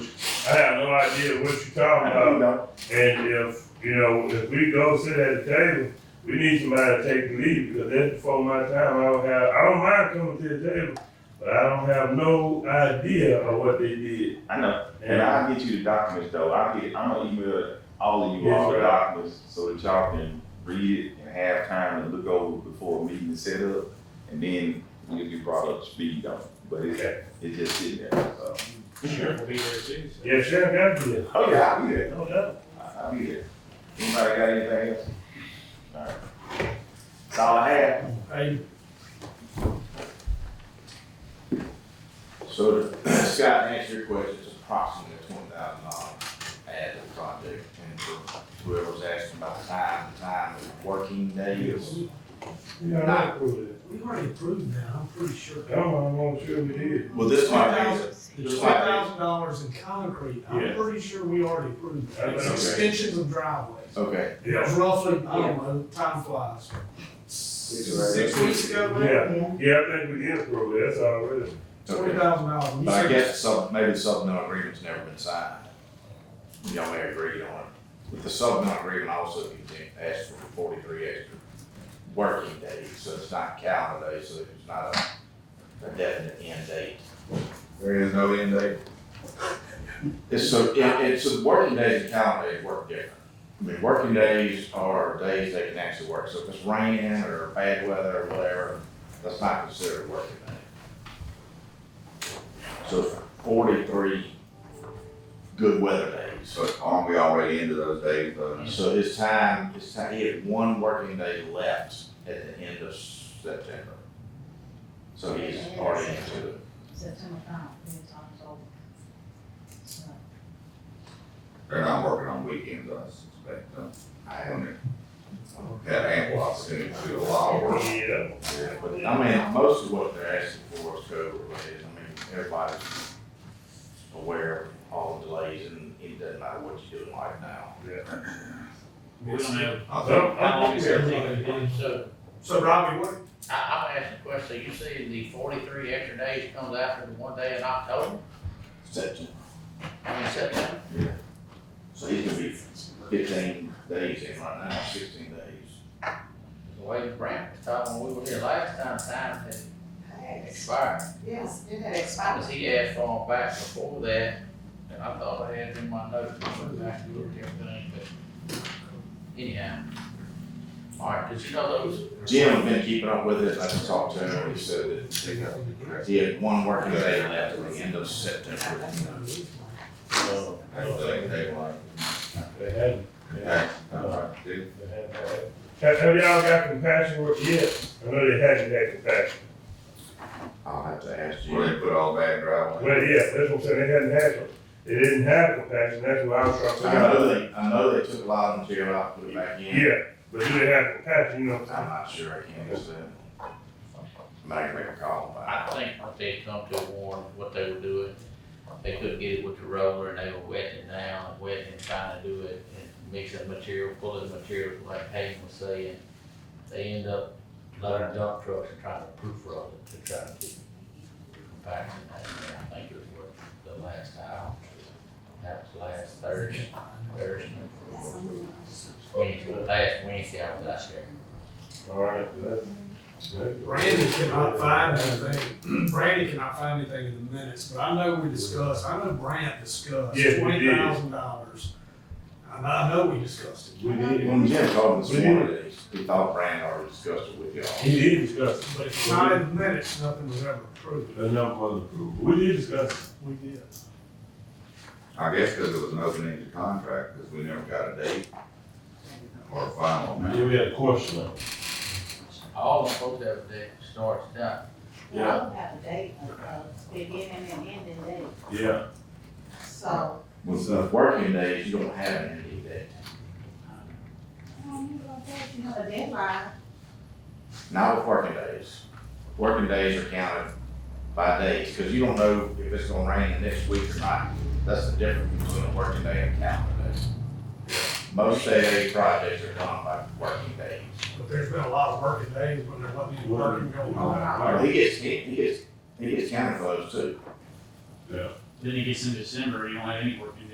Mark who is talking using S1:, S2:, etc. S1: I have no idea what you're talking
S2: I do
S1: about.
S2: not.
S1: And if, you know, if we go sit at the table, we need somebody to take the lead because that's before my time. I don't have, I don't mind coming to the table, but I don't have no idea of what they did.
S2: I know, and
S1: And
S2: I'll get you the documents though, I'll get, I'm gonna email all of you
S1: Yes,
S2: all the
S1: sir.
S2: documents, so that y'all can read it and have time to look over before a meeting is set up, and then you'll be brought up to speed on it, but it's,
S1: Okay.
S2: it's just sitting there, so.
S3: Sheriff will be there too. so.
S1: yeah, Sheriff got to do that.
S2: Oh, yeah, I'll be there.
S1: No doubt.
S2: I- I'll be there. Anybody got anything else? Alright. That's all I have.
S3: Hey,
S4: So to Scott, to answer your question, it's approximately twenty thousand dollars as a project, and for whoever was asking about time, the time of working days.
S1: Yeah, I approve it.
S5: We already approved that, I'm pretty sure.
S1: Come on, I'm sure we did.
S4: Well, this might be,
S5: The two thousand dollars in concrete, I'm
S1: Yeah.
S5: pretty sure we already approved that. It's
S1: Okay. Uh,
S5: extensions of driveways.
S4: okay,
S1: Yeah,
S5: It's roughly, I don't know, time flies. Six weeks ago,
S1: Yeah.
S5: maybe,
S1: yeah, I think we did approve it. That's already.
S5: twenty
S4: okay.
S5: thousand dollars. You
S4: But I
S5: said-
S4: guess some, maybe the supplemental agreement's never been signed. Y'all may agree on it. But the supplemental agreement also contain- asks for forty-three extra working days, so it's not calendar days, so it's not a, a definite end date.
S2: There is no end date.
S4: It's so, it, it's, so working days and calendar days work different. I mean, working days are days they can actually work, so if it's raining or bad weather or whatever, that's not considered a working day. So forty-three good weather days.
S2: So aren't um, we already into those days though?
S4: So his time, his time, he had one working day left at the end of September. So he's already into it.
S6: September ninth, then it's October. So,
S2: They're not working on weekends, I suspect, though.
S4: I
S2: I
S4: am,
S2: mean, Had ample opportunity to do a lot of work.
S1: Yeah.
S4: but I mean, most of what they're asking for is COVID related. I mean, everybody's aware of all the delays and it doesn't matter what you do in life now.
S3: we don't have,
S2: I think
S3: how long is everything gonna be, so,
S5: So Robbie, what,
S7: I, I'll ask a question, you say the forty-three extra days comes after the one day in October,
S4: September.
S7: I mean September?
S4: So he's gonna be fifteen days in right now, sixteen days.
S7: The way the grant was talking, when we were here last time, time had expired.
S6: Yes, it had
S7: Cause he asked for them back before that, and I thought I had it in my notes, I went back and looked at everything, but anyhow. All right, did you know those,
S4: Jim had been keeping up with it, I just talked to him, and he said that he had one working day left at the end of September.
S2: they like.
S1: They hadn't,
S2: Yeah. All right, dude.
S1: they hadn't. Have, have y'all got compassion with, yes, I know they hadn't had compassion.
S4: I'll have to ask
S2: Where
S4: Jim.
S2: they put all that gravel. in.
S1: Well, yeah, that's what I'm saying, they hadn't had it. They didn't have compassion, that's what I was trying to
S4: I
S1: figure out.
S4: know they, I know they took a lot of material out, put it back in.
S1: Yeah, but do they have compassion, you know what
S4: I'm
S1: I'm
S4: not sure, I can't answer that. I can make a call, but
S7: I
S4: I
S7: think what they come to warn what they were doing, they couldn't get it with the roller and they were wetting it down, and wetting and trying to do it and mixing material, pulling material, like Hayden was saying. They end up loading dump trucks and trying to proof roll it to try to keep compaction out there. I think it was what the last time, that was last Thursday, Thursday. Wednesday, last Wednesday I was out there.
S1: saying? All right, that's.
S5: Randy cannot find anything, Randy cannot find anything in the minutes, but I know we discussed, I know Brant discussed
S1: Yes, we
S5: twenty
S1: did.
S5: thousand dollars. I know, I know we discussed
S1: We
S4: think
S1: did,
S4: when Jim called this
S1: We did.
S4: morning, he- he thought Brandon already discussed it with y'all.
S1: he did discuss
S5: it,
S1: it,
S5: but it's not in the minutes, nothing was ever approved.
S1: but not for the approval, we did discuss it.
S5: We did.
S2: I guess because it was an open-ended contract, because we never got a date or a final amount.
S1: we had a question on it.
S7: All the folks that were there starts done.
S6: We don't have a date of, of beginning and ending date,
S1: Yeah,
S6: so.
S4: With the working days, you don't have an end date.
S6: Well, you don't have, you know, a deadline,
S4: Not with working days. Working days are counted by days, because you don't know if it's gonna rain the next week or not. That's the difference between a working day and a calendar day. Most day projects are done by working days.
S5: But there's been a lot of working days when there wasn't any working going on.
S4: He gets, he he gets, he gets counted for those too.
S1: Yeah.
S3: Then it gets into December, you don't have any working days.